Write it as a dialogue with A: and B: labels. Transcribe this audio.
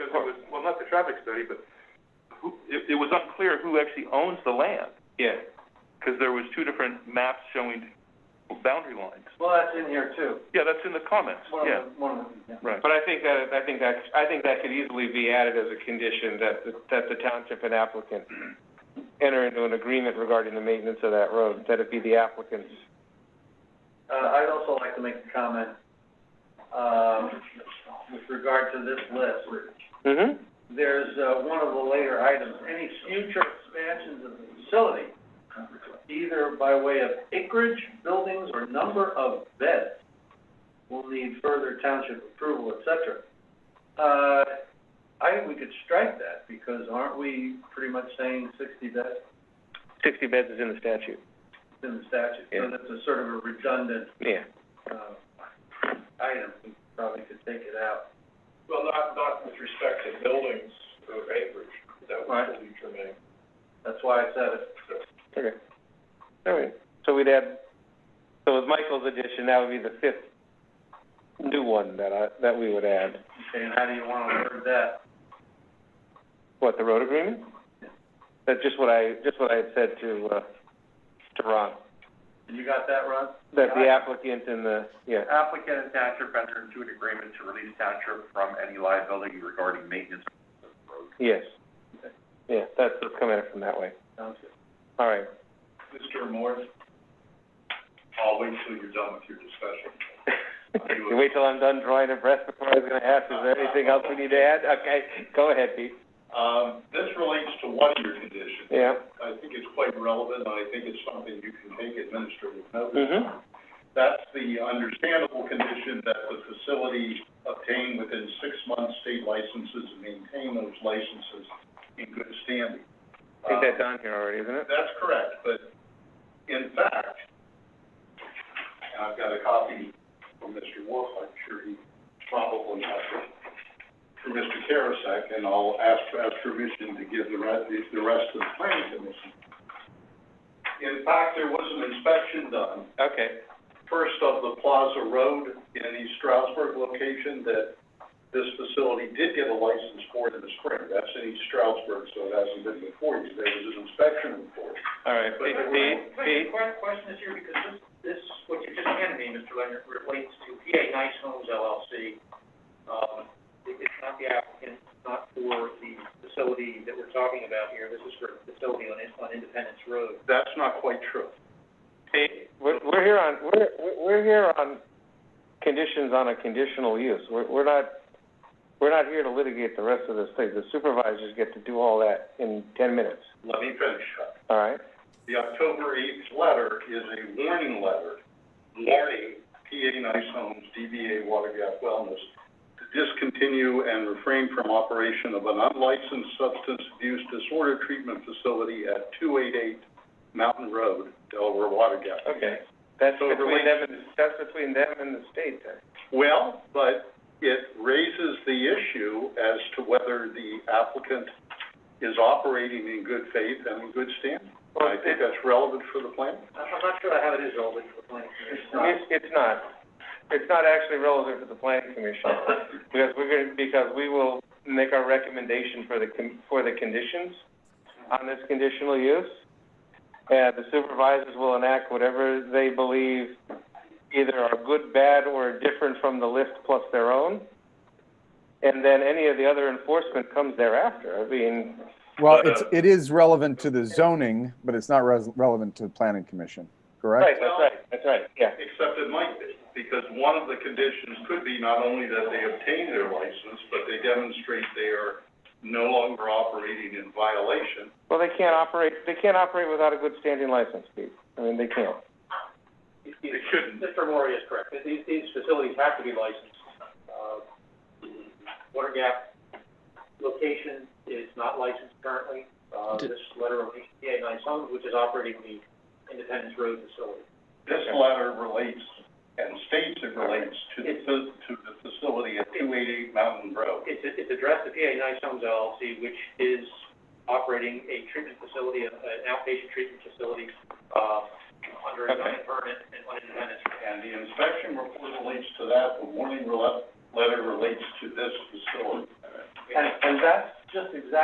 A: it was, well, not the traffic study, but who, it, it was unclear who actually owns the land,
B: Yeah.
A: because there was two different maps showing boundary lines.
C: Well, that's in here too.
A: Yeah, that's in the comments,
C: One
A: yeah,
C: of the, one of the, yeah.
A: right.
B: But I think that, I think that, I think that could easily be added as a condition that, the- that the township and applicant enter into an agreement regarding the maintenance of that road, that it be the applicant's.
C: Uh, I'd also like to make a comment, um, with regard to this list.
B: Mm-hmm.
C: There's, uh, one of the later items, any future expansions of the facility, either by way of acreage, buildings, or number of beds, will need further township approval, et cetera. Uh, I think we could strike that, because aren't we pretty much saying sixty beds?
B: Sixty beds is in the statute.
C: in the statute,
B: Yeah.
C: so that's a sort of a redundant,
B: Yeah.
C: uh, item, we probably could take it out.
D: Well, not, not with respect to buildings of acreage, that
C: Right.
D: would be germane.
C: That's why I said it.
B: Okay. All right, so we'd add, so with Michael's addition, that would be the fifth new one that I, that we would add.
C: Okay, and how do you wanna word that?
B: What, the road agreement? That's just what I, just what I had said to, uh, to Ron,
C: And you got that, Ron?
B: that the applicant and the, yeah.
E: Applicant and township enter into an agreement to release township from any liability regarding maintenance of the road.
B: Yes. Yeah, that's, let's come at it from that way.
C: Sounds good.
B: All right.
D: Mr. Morris, I'll wait till you're done with your discussion.
B: You wait till I'm done drawing a breath before I was gonna ask, is there anything else we need to add? Okay, go ahead, Pete.
D: Um, this relates to one of your conditions.
B: Yeah.
D: I think it's quite relevant, and I think it's something you can take administrative notice.
B: Mm-hmm.
D: That's the understandable condition that the facility obtain within six months state licenses and maintain those licenses in good standing.
B: I think
D: Uh,
B: that's on here already, isn't it?
D: That's correct, but in fact, and I've got a copy from Mr. Wolf, I'm sure he probably has it, from Mr. Karasek, and I'll ask, ask permission to give the rest, the rest of the planning commission. In fact, there was an inspection done
B: Okay.
D: first of the Plaza Road in the Stroudsburg location that this facility did get a license for in the spring. That's in East Stroudsburg, so it hasn't been before you. There was an inspection report.
B: All right,
D: But-
B: Pete, Pete, Pete,
C: question is here, because this, this, what you just handed me, Mr. Leonard, relates to PA Nice Homes LLC. Um, it's not the applicant, not for the facility that we're talking about here, this is for a facility on, on Independence Road.
D: That's not quite true.
B: Pete, we're, we're here on, we're, we're- we're here on conditions on a conditional use. We're, we're not, we're not here to litigate the rest of this thing. The supervisors get to do all that in ten minutes,
D: Let me finish up.
B: all right?
D: The October eighth letter is a warning letter, warning PA Nice Homes, DBA Water Gap Wellness, to discontinue and refrain from operation of an unlicensed substance abuse disorder treatment facility at two eight eight Mountain Road, Delaware Water Gap.
B: Okay. That's
D: So it
B: between them and, that's between them and the state then.
D: Well, but it raises the issue as to whether the applicant is operating in good faith and in good standing. I think that's relevant for the plan.
C: I'm not sure I have it as all, but for planning commission.
B: It's, it's not, it's not actually relevant to the planning commission, because we're gonna, because we will make our recommendation for the, con- for the conditions on this conditional use. And the supervisors will enact whatever they believe either are good, bad, or different from the list plus their own. And then any of the other enforcement comes thereafter, I mean,
F: Well,
D: But,
F: it's, it is relevant to the zoning, but it's not res- relevant to the planning commission, correct?
B: right, that's right, that's right, yeah,
D: Except it might be, because one of the conditions could be not only that they obtain their license, but they demonstrate they are no longer operating in violation.
B: well, they can't operate, they can't operate without a good standing license, Pete, I mean, they can't.
D: They shouldn't.
C: Mr. Mori is correct. These, these facilities have to be licensed. Uh, Water gap location is not licensed currently. Uh,
G: D-
C: this letter of HPA Nice Homes, which is operating the Independence Road facility.
D: This letter relates and states it relates to the, fa- to the facility at two eighty-eight Mountain Road.
C: It's, it's addressed to PA Nice Homes LLC, which is operating a treatment facility, an outpatient treatment facility, uh, under a
B: Okay.
C: zoning permit and on Independence. Road.
D: And the inspection report relates to that, the warning rela- letter relates to this facility.
B: And, and that's just exactly